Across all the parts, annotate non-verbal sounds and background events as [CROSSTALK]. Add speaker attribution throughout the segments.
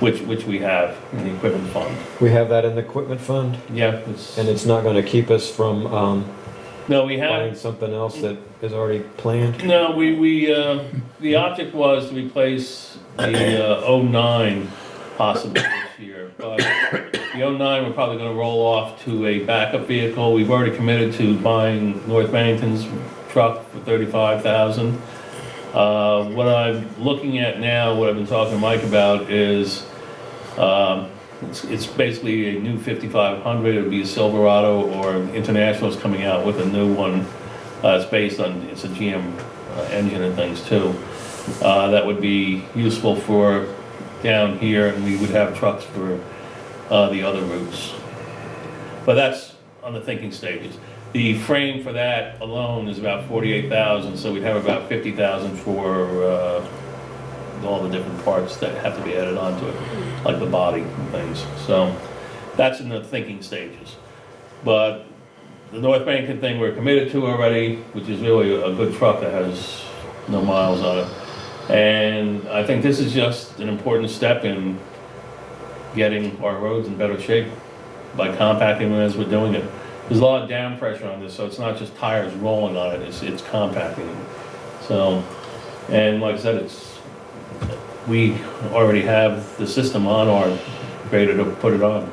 Speaker 1: which, which we have in the equipment fund.
Speaker 2: We have that in the equipment fund,
Speaker 1: Yeah, it's,
Speaker 2: and it's not gonna keep us from, um,
Speaker 1: no, we have,
Speaker 2: buying something else that is already planned?
Speaker 1: no, we, we, uh, the object was to replace the uh, 09 possibly this year. But the 09, we're probably gonna roll off to a backup vehicle. We've already committed to buying North Bennington's truck for 35,000. Uh, What I'm looking at now, what I've been talking to Mike about is, um, it's- it's basically a new 5500, it'd be a Silverado, or International's coming out with a new one. Uh, It's based on, it's a GM uh, engine and things too. Uh, That would be useful for down here, and we would have trucks for uh, the other routes. But that's on the thinking stages. The frame for that alone is about 48,000, so we'd have about 50,000 for uh, all the different parts that have to be added onto it, like the body and things. So that's in the thinking stages. But the North Bennington thing we're committed to already, which is really a good truck that has no miles on it. And I think this is just an important step in getting our roads in better shape by compacting them as we're doing it. There's a lot of down pressure on this, so it's not just tires rolling on it, it's, it's compacting it. So, and like I said, it's, we already have the system on our grader to put it on.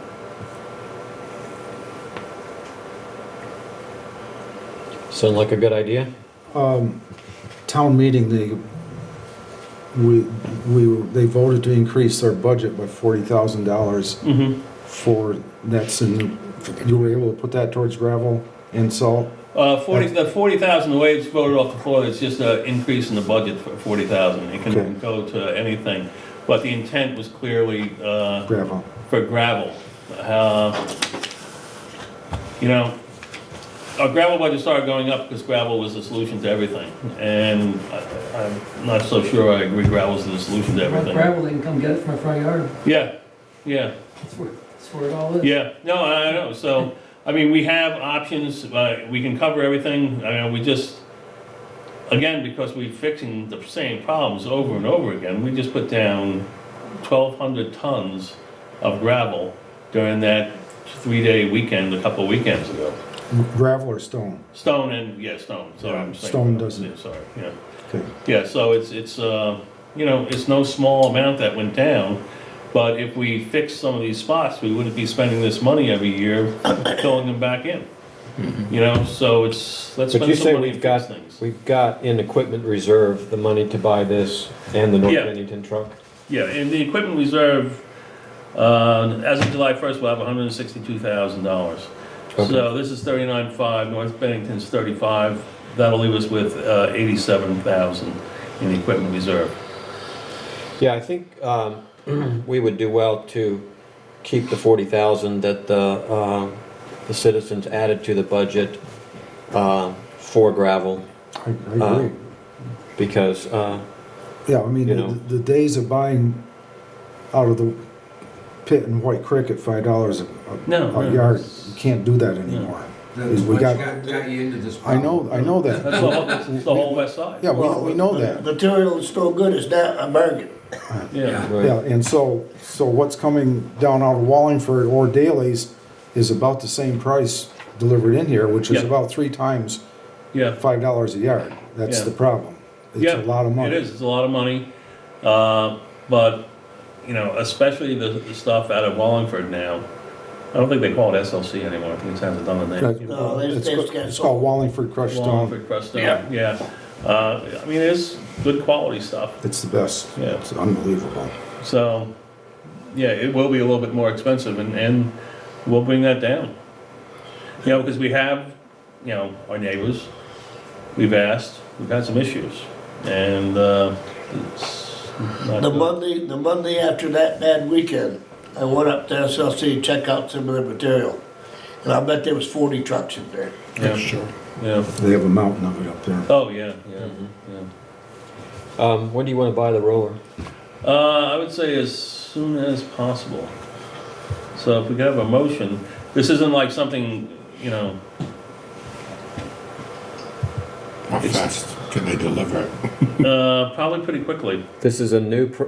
Speaker 2: Sound like a good idea?
Speaker 3: Um, town meeting, they, we, we, they voted to increase their budget by forty thousand dollars
Speaker 1: Mm-hmm.
Speaker 3: for, that's in, you were able to put that towards gravel and salt?
Speaker 1: Uh, forty, the forty thousand, the way it's voted off the floor, it's just an increase in the budget for forty thousand. It
Speaker 3: Okay.
Speaker 1: can go to anything, but the intent was clearly, uh,
Speaker 3: Gravel.
Speaker 1: for gravel. Uh, You know, our gravel budget started going up because gravel was the solution to everything. And I- I'm not so sure I agree gravel's the solution to
Speaker 4: Well,
Speaker 1: everything.
Speaker 4: Gravel, they can come get it from my front yard.
Speaker 1: Yeah, yeah.
Speaker 4: That's where, that's where it all is.
Speaker 1: Yeah, no, I I know, so, I mean, we have options, uh, we can cover everything, I mean, we just, again, because we're fixing the same problems over and over again, we just put down twelve hundred tons of gravel during that three-day weekend, a couple weekends ago.
Speaker 3: Gravel or stone?
Speaker 1: Stone and, yeah, stone, sorry, I'm saying.
Speaker 3: Stone doesn't-
Speaker 1: Yeah, Sorry, yeah.
Speaker 3: Okay.
Speaker 1: Yeah, so it's, it's, uh, you know, it's no small amount that went down, but if we fix some of these spots, we wouldn't be spending this money every year [COUGHS] filling them back in. You know, so it's, let's
Speaker 2: But you
Speaker 1: spend
Speaker 2: say
Speaker 1: some money
Speaker 2: we've
Speaker 1: and fix
Speaker 2: got,
Speaker 1: things.
Speaker 2: we've got in equipment reserve the money to buy this and the North
Speaker 1: Yeah.
Speaker 2: Bennington truck?
Speaker 1: Yeah, and the equipment reserve, uh, as of July first, we'll have hundred and sixty-two thousand dollars.
Speaker 2: Okay.
Speaker 1: So this is thirty-nine five, North Bennington's thirty-five, that'll leave us with, uh, eighty-seven thousand in the equipment reserve.
Speaker 2: Yeah, I think um, [CLEARS THROAT] we would do well to keep the 40,000 that the, uh, the citizens added to the budget uh, for gravel,
Speaker 3: I, I
Speaker 2: Uh,
Speaker 3: agree.
Speaker 2: because, uh,
Speaker 3: Yeah, I mean,
Speaker 2: you
Speaker 3: the,
Speaker 2: know.
Speaker 3: the days of buying out of the pit in White Creek at five dollars a,
Speaker 1: No,
Speaker 3: a
Speaker 1: no.
Speaker 3: yard, you can't do that anymore.
Speaker 5: That's
Speaker 3: We
Speaker 5: what
Speaker 3: got-
Speaker 5: got, got you into this
Speaker 3: I
Speaker 5: problem.
Speaker 3: know, I know that.
Speaker 1: That's the whole, that's the whole west side.
Speaker 3: Yeah, we,
Speaker 6: Well,
Speaker 3: we know
Speaker 6: the-
Speaker 3: that.
Speaker 6: the Material is so good, it's not a bargain.
Speaker 1: Yeah.
Speaker 3: Yeah, and so, so what's coming down out of Wallingford or Daley's is about the same price delivered in here, which is
Speaker 1: Yeah.
Speaker 3: about three times
Speaker 1: Yeah,
Speaker 3: five dollars a yard. That's
Speaker 1: Yeah.
Speaker 3: the problem. It's
Speaker 1: yeah.
Speaker 3: a lot of money.
Speaker 1: It is, it's a lot of money. Uh, But, you know, especially the the stuff out of Wallingford now, I don't think they call it SLC anymore, I think it sounds a dumb
Speaker 3: Like,
Speaker 1: name.
Speaker 6: No, they-
Speaker 3: It's
Speaker 6: they
Speaker 3: co-
Speaker 6: just got
Speaker 3: it's called
Speaker 6: sold.
Speaker 3: Wallingford crushed stone.
Speaker 1: Wallingford crust stone, yeah. Uh, I mean, it is good quality stuff,
Speaker 3: It's the best.
Speaker 1: Yeah.
Speaker 3: It's unbelievable.
Speaker 1: so, yeah, it will be a little bit more expensive, and, and we'll bring that down. You know, because we have, you know, our neighbors, we've asked, we've had some issues, and uh, it's not
Speaker 6: The
Speaker 1: good.
Speaker 6: Monday, the Monday after that bad weekend, I went up to SLC to check out some of the material. And I bet there was forty trucks in there.
Speaker 1: Yeah, yeah.
Speaker 3: They have a mountain of it up there.
Speaker 1: Oh, yeah, yeah, yeah.
Speaker 2: um, when do you want to buy the roller?
Speaker 1: Uh, I would say as soon as possible. So if we could have a motion, this isn't like something, you know,
Speaker 7: How fast can they deliver it?
Speaker 1: uh, probably pretty quickly.
Speaker 2: This is a new, pr-